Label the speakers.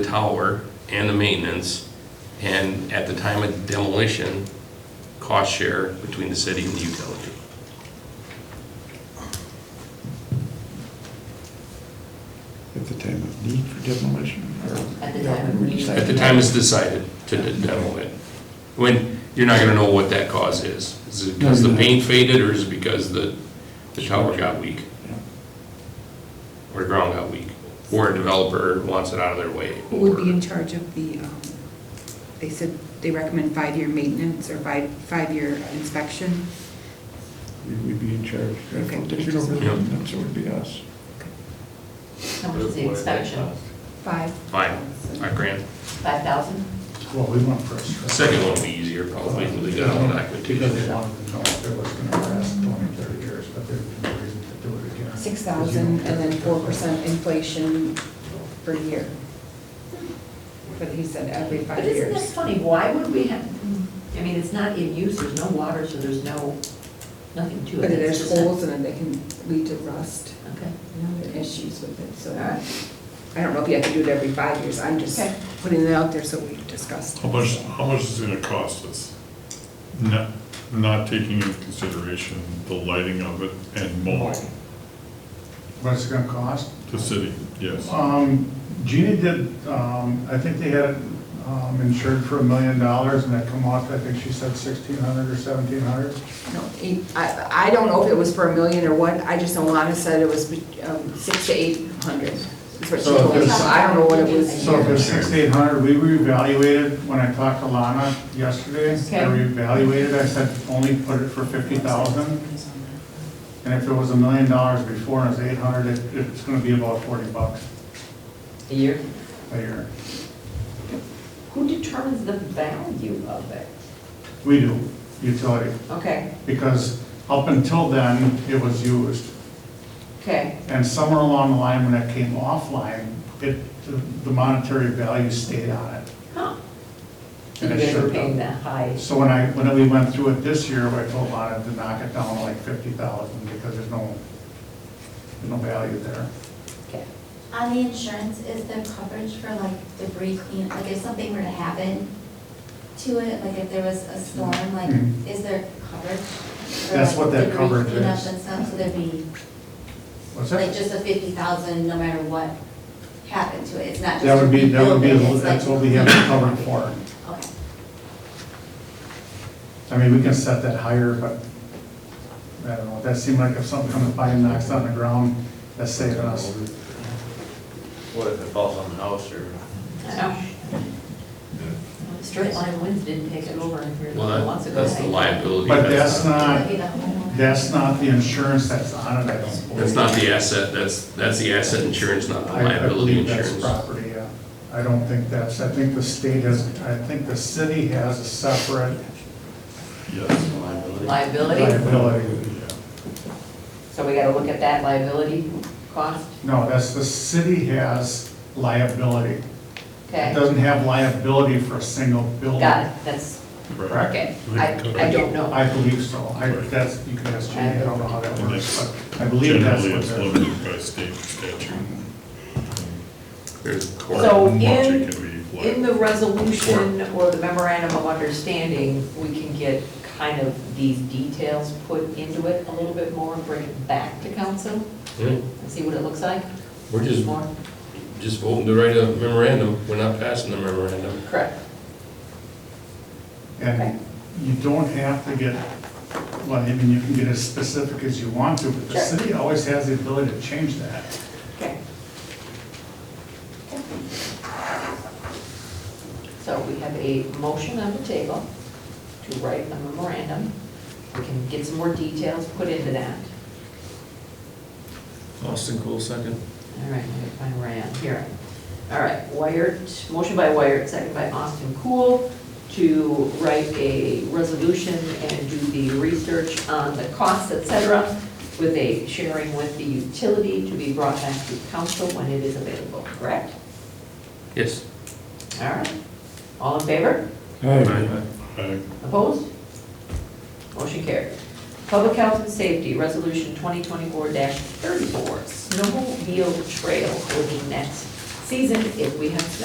Speaker 1: tower and the maintenance, and at the time of demolition, cost share between the city and the utility.
Speaker 2: At the time of need for demolition? or-
Speaker 3: At the time of need.
Speaker 1: At the time it's decided to demo it. When, you're not gonna know what that cause is. Is it because the paint faded, or is it because the, the tower got weak?
Speaker 2: Yeah.
Speaker 1: Or the ground got weak? Or a developer wants it out of their way?
Speaker 4: Who would be
Speaker 1: or-
Speaker 4: in charge of the, um, they said they recommend five-year maintenance or five, five-year inspection?
Speaker 2: We- We'd be in charge. I don't think you'd over
Speaker 1: Yep.
Speaker 2: them, so it would be us.
Speaker 3: How much is the inspection?
Speaker 4: Five.
Speaker 1: Fine, five grand.
Speaker 3: Five thousand?
Speaker 5: Well, we want first.
Speaker 1: The Second one will be easier probably, we got one back with two.
Speaker 5: Because they wanted to know if it was gonna last 20, 30 years, but there's no reason to do it again.
Speaker 4: Six thousand and then four percent inflation per year. But he said every
Speaker 3: But
Speaker 4: five
Speaker 3: isn't that
Speaker 4: years.
Speaker 3: funny, why would we have, I mean, it's not in use, there's no water, so there's no, nothing to it.
Speaker 4: But
Speaker 3: It's
Speaker 4: there's
Speaker 3: just a-
Speaker 4: holes in it that can lead to rust
Speaker 3: Okay,
Speaker 4: and other issues with it, so.
Speaker 3: all right.
Speaker 4: I don't know if you have to do it every five years, I'm just
Speaker 3: Okay.
Speaker 4: putting it out there so we discussed.
Speaker 6: How much, how much is it gonna cost us? Not, not taking into consideration the lighting of it and mowing,
Speaker 5: What's it gonna cost?
Speaker 6: the city, yes.
Speaker 5: Um, Gina did, um, I think they had it um, insured for a million dollars and that come off, I think she said sixteen hundred or seventeen hundred.
Speaker 4: No, he- I, I don't know if it was for a million or what, I just know Lana said it was um, six to eight hundred, is what she
Speaker 5: So
Speaker 4: told me,
Speaker 5: there's-
Speaker 4: so I don't know what it was.
Speaker 5: So if it's sixteen hundred, we reevaluated, when I talked to Lana yesterday, I
Speaker 3: Okay.
Speaker 5: reevaluated, I said only put it for fifty thousand. And if it was a million dollars before and it was eight hundred, it, it's gonna be about forty bucks
Speaker 3: A year?
Speaker 5: a year.
Speaker 3: Who determines the value of it?
Speaker 5: We do, utility,
Speaker 3: Okay,
Speaker 5: because up until then, it was used.
Speaker 3: okay,
Speaker 5: And somewhere along the line, when it came offline, it, the monetary value stayed on it.
Speaker 3: huh. So
Speaker 5: And
Speaker 3: you
Speaker 5: it
Speaker 3: guys
Speaker 5: sure
Speaker 3: are paying
Speaker 5: does.
Speaker 3: that high,
Speaker 5: So when I, when we went through it this year, I told Lana to knock it down to like fifty thousand, because there's no, there's no value there.
Speaker 3: okay.
Speaker 7: On Uh, the insurance, is there coverage for like debris clean, like if something were to happen to it, like if there was a storm, like,
Speaker 5: Mhm.
Speaker 7: is there coverage? for,
Speaker 5: That's
Speaker 7: like,
Speaker 5: what that
Speaker 7: debris
Speaker 5: coverage
Speaker 7: cleanup
Speaker 5: is.
Speaker 7: and stuff, so there'd be,
Speaker 5: What's
Speaker 7: like,
Speaker 5: that?
Speaker 7: just a fifty thousand, no matter what happened to it, it's not just.
Speaker 5: That would be, that would be,
Speaker 7: rebuilding, it's
Speaker 5: that's
Speaker 7: like-
Speaker 5: what we have covered for.
Speaker 7: Okay.
Speaker 5: I mean, we can set that higher, but I don't know, that seemed like if something comes by and knocks on the ground, that's saving us.
Speaker 8: What if it falls on the house or?
Speaker 3: Oh. Straight line winds didn't take it over here a couple
Speaker 1: Well,
Speaker 3: months
Speaker 1: that-
Speaker 3: ago.
Speaker 1: that's the liability.
Speaker 5: But that's not,
Speaker 7: Maybe the homeowner.
Speaker 5: that's not the insurance that's on it, I don't believe.
Speaker 1: That's not the asset, that's, that's the asset insurance, not the
Speaker 5: I- I
Speaker 1: liability
Speaker 5: believe
Speaker 1: insurance.
Speaker 5: That's property, yeah. I don't think that's, I think the state has, I think the city has a separate
Speaker 6: Yes.
Speaker 3: Liability,
Speaker 5: liability.
Speaker 3: so we gotta look at that liability cost,
Speaker 5: No, that's, the city has liability. It
Speaker 3: okay?
Speaker 5: doesn't have liability for a single building.
Speaker 3: Got it, that's,
Speaker 6: Right.
Speaker 5: Correct?
Speaker 3: okay, I, I don't know.
Speaker 5: I believe so. I, that's, you can ask Jenny, I don't know how that works, but I believe that's
Speaker 6: Generally,
Speaker 5: what
Speaker 6: it's
Speaker 5: they're-
Speaker 6: limited by state statute.
Speaker 1: There's court.
Speaker 3: So
Speaker 6: Much
Speaker 3: in-
Speaker 6: it can be, like,
Speaker 3: In the resolution or the memorandum of understanding, we can get kind of these details put into it a little bit more, bring it back to council
Speaker 1: Yeah,
Speaker 3: and see what it looks like.
Speaker 1: Hmm? We're just,
Speaker 3: More,
Speaker 1: just voting to write a memorandum, we're not passing the memorandum.
Speaker 3: correct.
Speaker 5: And you don't have to get, well, I mean, you can get as specific as you want to, but the
Speaker 3: Sure.
Speaker 5: city always has the ability to change that.
Speaker 3: Okay. So we have a motion on the table to write a memorandum. We can get some more details put into that.
Speaker 8: Austin Cool, second.
Speaker 3: All right, let me find where I am here. All right, Wired, motion by Wired, second by Austin Cool, to write a resolution and do the research on the costs, et cetera, with a sharing with the utility to be brought back to council when it is available, correct?
Speaker 1: Yes.
Speaker 3: All right. All in favor?
Speaker 6: I-
Speaker 3: Opposed? Motion carried. Public health and safety, resolution 2024-34, snowmobile trail for the next season if we have snow.